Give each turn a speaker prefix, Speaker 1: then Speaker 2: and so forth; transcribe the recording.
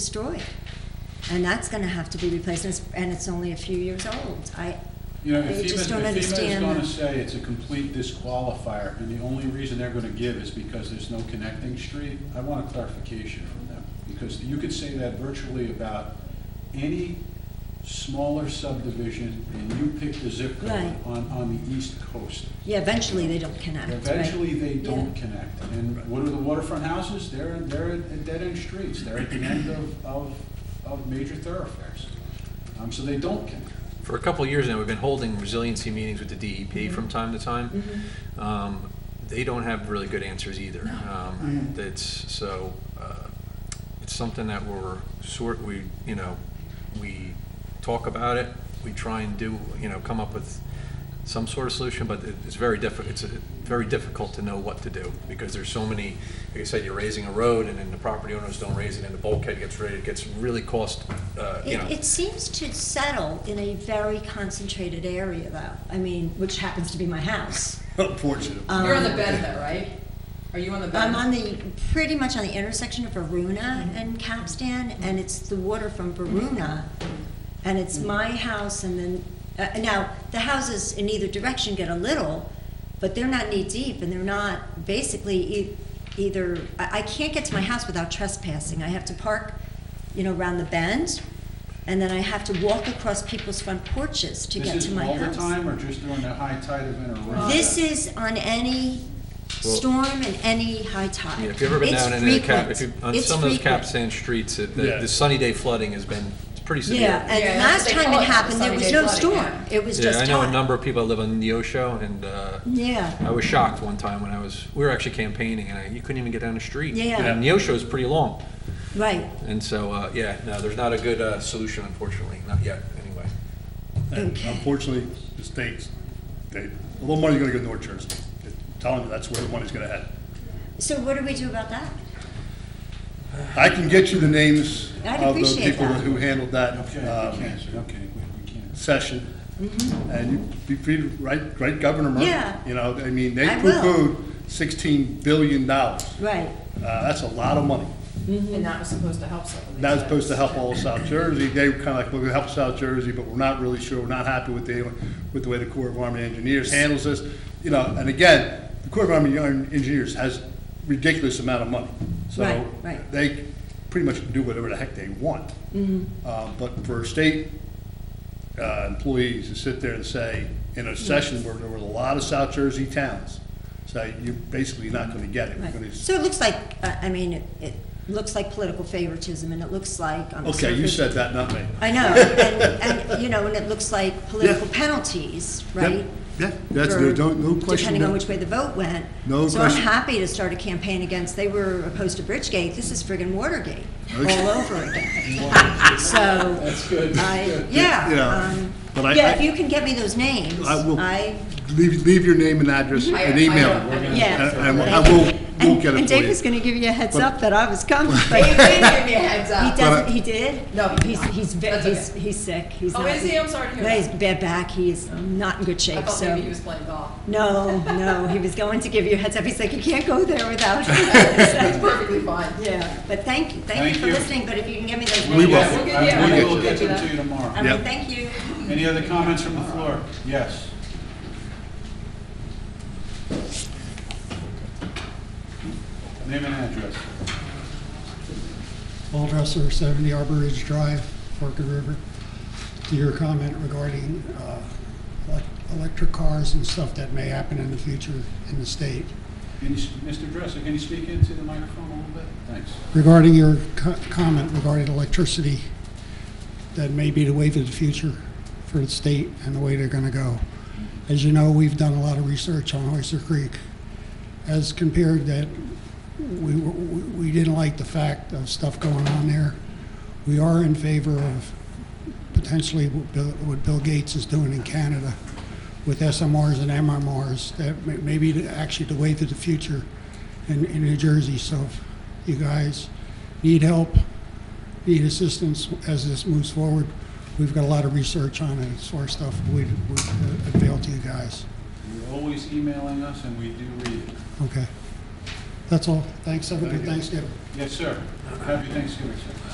Speaker 1: destroyed. And that's going to have to be replaced, and it's- and it's only a few years old. I,
Speaker 2: You know,
Speaker 1: They
Speaker 2: if
Speaker 1: just don't
Speaker 2: FEMA, if FEMA is
Speaker 1: understand
Speaker 2: gonna
Speaker 1: that.
Speaker 2: say it's a complete disqualifier, and the only reason they're gonna give is because there's no connecting street, I want a clarification from them. Because you could say that virtually about any smaller subdivision, and you pick the zip code
Speaker 1: Right.
Speaker 2: on, on the east coast.
Speaker 1: yeah, eventually they don't connect, right?
Speaker 2: Eventually, they don't
Speaker 1: Yeah.
Speaker 2: connect. And what are the waterfront houses? They're, they're at dead-end streets. They're at the end of, of, of major thoroughfares. Um, so they don't connect.
Speaker 3: For a couple of years now, we've been holding resiliency meetings with the DEP from time to time. Um, They don't have really good answers either. Um, That's, so, uh, it's something that we're sort, we, you know, we talk about it, we try and do, you know, come up with some sort of solution, but it- it's very diffi, it's uh, very difficult to know what to do, because there's so many, like I said, you're raising a road, and then the property owners don't raise it, and the bulkhead gets raised, it gets really cost, uh, you know.
Speaker 1: It, it seems to settle in a very concentrated area, though. I mean, which happens to be my house.
Speaker 4: Unfortunately.
Speaker 1: Um,
Speaker 5: You're on the bed though, right? Are you on the bed?
Speaker 1: I'm on the, pretty much on the intersection of
Speaker 2: Mm-hmm.
Speaker 1: Varuna and Capstan, and it's the water from Varuna, and it's
Speaker 2: Mm-hmm.
Speaker 1: my house, and then, uh, now, the houses in either direction get a little, but they're not knee-deep, and they're not, basically, e- either, I, I can't get to my house without trespassing. I have to park, you know, around the bend, and then I have to walk across people's front porches to get to my house.
Speaker 2: This is all the time or just during the high tide event or when?
Speaker 1: This is on any
Speaker 3: Well-
Speaker 1: storm and any high tide.
Speaker 3: Yeah, if you've ever been
Speaker 1: It's
Speaker 3: down in the cap,
Speaker 1: frequent.
Speaker 3: if you, on
Speaker 1: It's
Speaker 3: some of those
Speaker 1: frequent.
Speaker 3: cap sand streets, it- the,
Speaker 4: Yeah.
Speaker 3: the sunny day flooding has been, it's pretty severe.
Speaker 1: Yeah,
Speaker 5: Yeah,
Speaker 1: and
Speaker 5: that's
Speaker 1: last
Speaker 5: what they
Speaker 1: time
Speaker 5: call
Speaker 1: it
Speaker 5: it,
Speaker 1: happened, there
Speaker 5: sunny
Speaker 1: was
Speaker 5: day
Speaker 1: no
Speaker 5: flooding,
Speaker 1: storm,
Speaker 5: yeah.
Speaker 1: it was
Speaker 3: Yeah,
Speaker 1: just
Speaker 3: I
Speaker 1: hot.
Speaker 3: know a number of people that live on Neosho, and, uh,
Speaker 1: Yeah,
Speaker 3: I was shocked one time when I was, we were actually campaigning, and I, you couldn't even get down the street.
Speaker 1: Yeah.
Speaker 3: And Neosho's pretty long,
Speaker 1: right,
Speaker 3: and so, uh, yeah, no, there's not a good, uh, solution unfortunately, not yet, anyway.
Speaker 4: And
Speaker 1: Okay.
Speaker 4: unfortunately, the states, they, a little money's gonna go to North Jersey. They're Telling you that's where the money's gonna head.
Speaker 1: so what do we do about that?
Speaker 4: I can get you the names
Speaker 1: I'd
Speaker 4: of the
Speaker 1: appreciate
Speaker 4: people
Speaker 1: that.
Speaker 4: who handled that
Speaker 2: Okay,
Speaker 4: um,
Speaker 2: we can't, sir. okay, we- we can't.
Speaker 4: session. And you be free to write, write Governor
Speaker 1: Mm-hmm. Yeah.
Speaker 4: Murphy. You know, I mean, they
Speaker 1: I will.
Speaker 4: poo-pooed sixteen billion dollars.
Speaker 1: Right,
Speaker 4: Uh, that's a lot of money.
Speaker 5: And that was supposed to help some of these.
Speaker 4: That was supposed to help all of South Jersey. They were kinda like, we're gonna help South Jersey, but we're not really sure, we're not happy with the, with the way the Corps of Army Engineers handles this. You know, and again, the Corps of Army Engineers has ridiculous amount of money.
Speaker 1: Right,
Speaker 4: So
Speaker 1: right. Mm-hmm.
Speaker 4: they pretty much can do whatever the heck they want. Uh, but for state, uh, employees to sit there and say, in a session where there were a lot of South Jersey towns, say, you're basically not gonna get it. We're gonna
Speaker 1: right. So it looks like, uh, I mean, it, it looks like political favoritism, and it looks like on the
Speaker 4: Okay, you
Speaker 1: surface-
Speaker 4: said that, not me.
Speaker 1: I know, and, and, you know, and it looks like political penalties, right?
Speaker 4: Yeah, that's,
Speaker 1: for-
Speaker 4: no, don't- no question.
Speaker 1: Depending on
Speaker 4: no-
Speaker 1: which way the vote went.
Speaker 4: No
Speaker 1: So I'm
Speaker 4: question.
Speaker 1: happy to start a campaign against, they were opposed to Bridgegate, this is friggin' Watergate,
Speaker 4: Okay.
Speaker 1: all over again. So,
Speaker 2: That's good.
Speaker 1: I,
Speaker 4: You know,
Speaker 1: yeah,
Speaker 4: but
Speaker 1: um,
Speaker 4: I-
Speaker 1: yeah,
Speaker 4: I-
Speaker 1: if you can get me those names,
Speaker 4: I will-
Speaker 1: I,
Speaker 4: Leave, leave your name and address
Speaker 5: I-
Speaker 4: and
Speaker 5: I-
Speaker 4: email.
Speaker 5: I-
Speaker 1: yeah.
Speaker 4: And- and I
Speaker 1: thank you.
Speaker 4: will- we'll
Speaker 1: And-
Speaker 4: get it
Speaker 1: And
Speaker 4: for you.
Speaker 1: Dave was gonna give you a heads
Speaker 4: But-
Speaker 1: up that I was coming, but
Speaker 5: He
Speaker 1: he
Speaker 5: did give me a heads up.
Speaker 1: doesn't,
Speaker 4: I-
Speaker 1: he did?
Speaker 5: No, he did
Speaker 1: He's,
Speaker 5: not.
Speaker 1: he's, ve-
Speaker 5: That's
Speaker 1: he's,
Speaker 5: okay.
Speaker 1: he's sick, he's
Speaker 5: Oh,
Speaker 1: not.
Speaker 5: is he? I'm sorry to hear
Speaker 1: No,
Speaker 5: that. Oh.
Speaker 1: He's bad back, he is not in good
Speaker 5: I
Speaker 1: shape,
Speaker 5: thought
Speaker 1: so.
Speaker 5: maybe he was playing golf.
Speaker 1: No, no, he was going to give you a heads up. He's like, you can't go there without. Yeah,
Speaker 5: That's perfectly fine.
Speaker 1: but thank you, thank
Speaker 2: Thank
Speaker 1: you for
Speaker 2: you.
Speaker 1: listening, but if you can give me those.
Speaker 2: We'll
Speaker 1: names,
Speaker 2: get-
Speaker 5: will.
Speaker 2: I-
Speaker 5: Yeah.
Speaker 2: We
Speaker 4: We'll
Speaker 2: will get
Speaker 5: get you
Speaker 2: them to you
Speaker 5: that.
Speaker 1: I
Speaker 2: tomorrow.
Speaker 1: mean,
Speaker 4: Yep.
Speaker 1: thank you.
Speaker 2: Any other comments from the floor? Yes. Name and address.
Speaker 6: Paul Dresser, 70 Arbor Ridge Drive, Forked River. To your comment regarding uh, elec- electric cars and stuff that may happen in the future in the state.
Speaker 2: Can you s- Mr. Dresser, can you speak into the microphone a little bit? Thanks.
Speaker 6: Regarding your co- comment regarding electricity, that may be the way to the future for the state and the way they're going to go. As you know, we've done a lot of research on Oyster Creek. As compared that, we, we we didn't like the fact of stuff going on there. We are in favor of potentially what Bill- what Bill Gates is doing in Canada with SMRs and MMRs, that may may be the- actually the way to the future in, in New Jersey. So if you guys need help, need assistance as this moves forward, we've got a lot of research on it, sort of stuff we, we uh, avail to you guys.
Speaker 2: You're always emailing us and we do read it.
Speaker 6: Okay. That's all. Thanks, have a
Speaker 2: Thank
Speaker 6: good
Speaker 2: you.
Speaker 6: Thanksgiving.
Speaker 2: Yes, sir. Happy Thanksgiving, sir.